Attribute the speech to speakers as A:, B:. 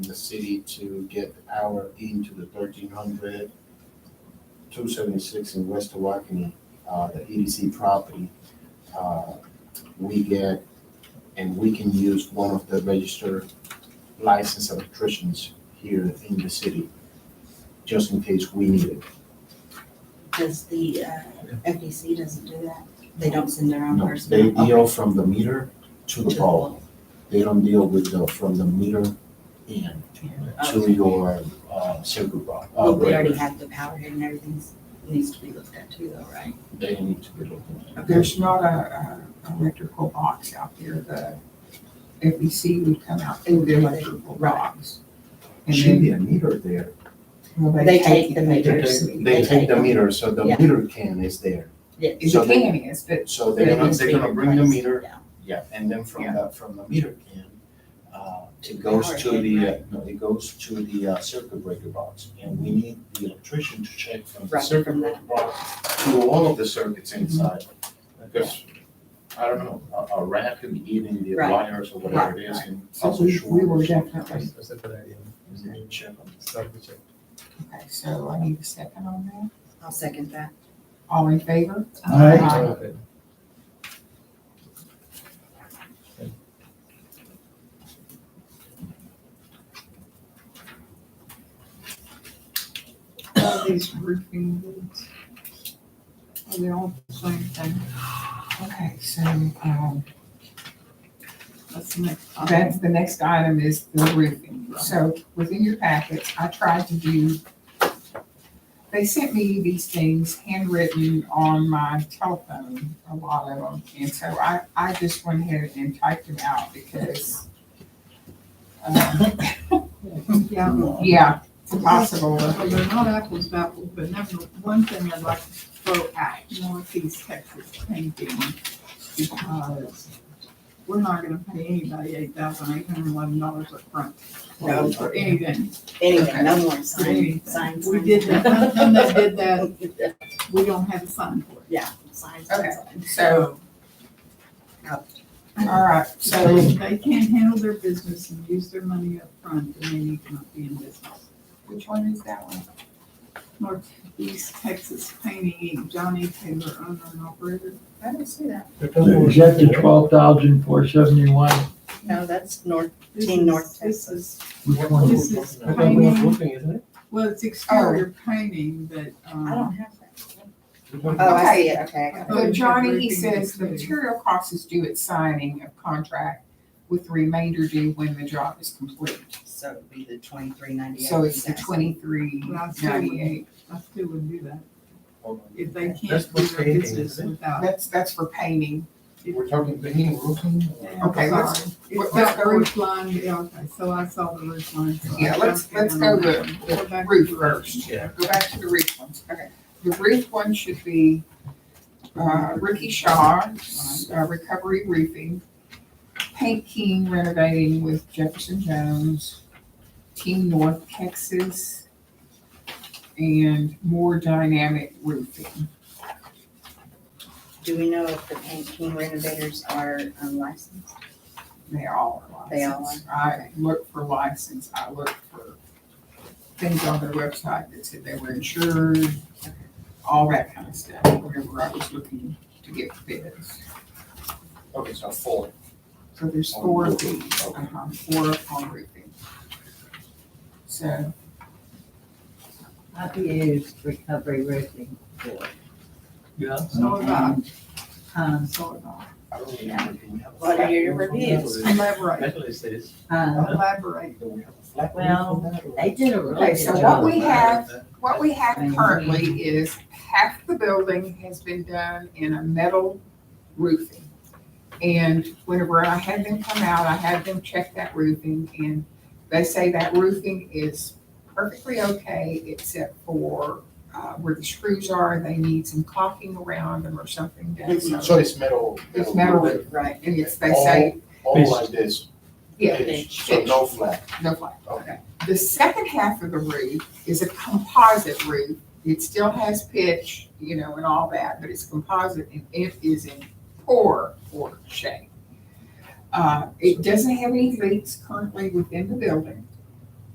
A: the city to get the power into the 1300 276 in West Waukene, uh, the EDC property. Uh, We get, and we can use one of the registered licensed electricians here in the city, just in case we need it.
B: Does the, uh, FEC doesn't do that? They don't send their own
A: No,
B: person?
A: they
B: out?
A: deal from the meter to the
B: Okay.
A: pole. They don't deal with the, from the meter in
B: Oh,
A: to your, uh, circuit Uh, box.
B: But we already have the power here and everything's, needs to be looked at too though, right?
A: They need to be looking at.
C: There's not a, a electrical box out there, the FEC would come out through the electrical box. And
A: Should
C: then,
A: be a meter there.
C: well,
B: They take the
C: it.
B: meters.
A: They take the meter, so the
B: Yeah.
A: meter can is there.
B: Yeah.
C: It's
A: So
C: a
A: they-
C: can is, but
A: So they're gonna, they're gonna bring the meter,
B: Yeah.
A: yeah, and then from
C: Yeah.
A: the, from the meter can, uh,
B: To
A: it
B: the
A: goes
B: power
A: to
B: head,
A: the, uh, no, it goes to the uh, circuit breaker box. And we need the electrician to check from the
B: Right,
A: circuit
B: from
A: breaker box to all of the circuits inside. Because, I don't know, a, a rat could be eating the
B: Right.
A: wires or whatever it is
C: Right,
A: and
C: so
A: also
C: we,
A: short.
C: we will definitely,
D: That's a good idea.
A: Check them.
D: Start the check.
C: okay, so I need a second on that.
B: I'll second that.
C: All in favor?
D: Aye.
C: Aye. All these roofing bids. Are they all the same thing? Okay, so, um,
E: That's the next.
C: that's, the next item is the roofing. So within your packets, I tried to do, they sent me these things handwritten on my telephone, a lot of them. And so I, I just went ahead and typed them out because, um,
E: Yeah,
C: yeah, it's impossible.
E: well, they're not apples to apples, but number one thing I'd like to throw out, Northeast Texas painting, because we're not gonna pay anybody eight thousand eight hundred eleven dollars upfront
B: No.
E: for anything.
B: Anyway, no more
E: Anything.
B: signs, signs.
E: We did that, and they did that,
B: that.
E: we don't have a sign for it.
B: Yeah, signs.
C: Okay.
B: signs.
C: So, all right, so
E: So they can't handle their business and use their money upfront, then they need to not be in business.
C: which one is that one?
E: Northeast Texas Painting, Inc., Johnny Taylor, owner and operator.
B: I don't see that.
F: Is that the twelve thousand four seventy-one?
B: No, that's north,
E: This
B: Team
E: is-
B: North
E: this
B: Texas.
E: is-
F: Which one?
E: This is
D: I thought we were
E: painting.
D: roofing, isn't it?
E: Well, it's exterior painting, but,
B: I
E: um,
B: don't have that.
D: We're talking-
B: Oh, I see it, okay. I got it.
E: Oh,
C: So
E: it's
C: Johnny, he
E: everything
C: says the
E: included.
C: material cost is due at signing of contract with the remainder due when the job is complete.
B: So it'd be the twenty-three ninety-eight.
C: So it's the twenty-three
E: Well, I still
C: ninety-eight.
E: wouldn't, I still wouldn't do that.
A: Hold on.
E: If they
D: That's
E: can't do
D: what
E: their
D: painting
E: business
D: is, isn't it?
E: without.
C: That's, that's for painting.
A: We're talking beginning roofing?
E: Yeah,
C: Okay, let's-
E: sorry.
C: let's
E: It's got
C: go-
E: the roof line, yeah, okay, so I saw the roof line. so I
C: Yeah, let's,
E: jumped
C: let's
E: in
C: go
E: on
C: the,
E: that one. Go
C: the
E: back
C: roof
E: to the
C: first.
D: Yeah.
C: Go back to the roof ones. Okay. The roof one should be, uh, Ricky Shaw, uh, Recovery Roofing, Paint King Renovating with Jefferson Jones, Team North Texas, and More Dynamic Roofing.
B: Do we know if the Paint King renovators are um, licensed?
C: They all are
B: They all
C: licensed. I looked for license, I looked for things on their website that said they were insured, all that kind of stuff, whenever I was looking to get bids.
A: Okay, so four.
C: So there's
A: On
C: four of
A: roofing,
C: these,
A: okay.
C: uh-huh, four on roofing. So,
G: I've used recovery roofing before.
D: Yeah.
E: So did I,
G: Um,
E: so did I.
A: I don't remember, do we have a
B: What
A: flat
B: are your
A: roof on that,
B: reviews?
A: or
E: Elaborate,
D: That's what it says.
G: uh,
E: elaborate.
A: Do we have a flat roof
G: Well,
A: on that, or-
G: they did a really
C: okay,
G: good
C: so
G: job.
C: what we have, what we have currently is half the building has been done in a metal roofing. And whenever I had them come out, I had them check that roofing and they say that roofing is perfectly okay except for, uh, where the screws are, they need some caulking around them or something done.
A: So it's metal.
C: It's metal roof,
B: Right.
C: and it's, they say,
A: All like this.
C: yeah,
A: pitch, So no flat,
C: no flat.
A: okay.
C: The second half of the roof is a composite roof. It still has pitch, you know, and all that, but it's composite and it is in poor, poor shape. Uh, it doesn't have any leaks currently within the building.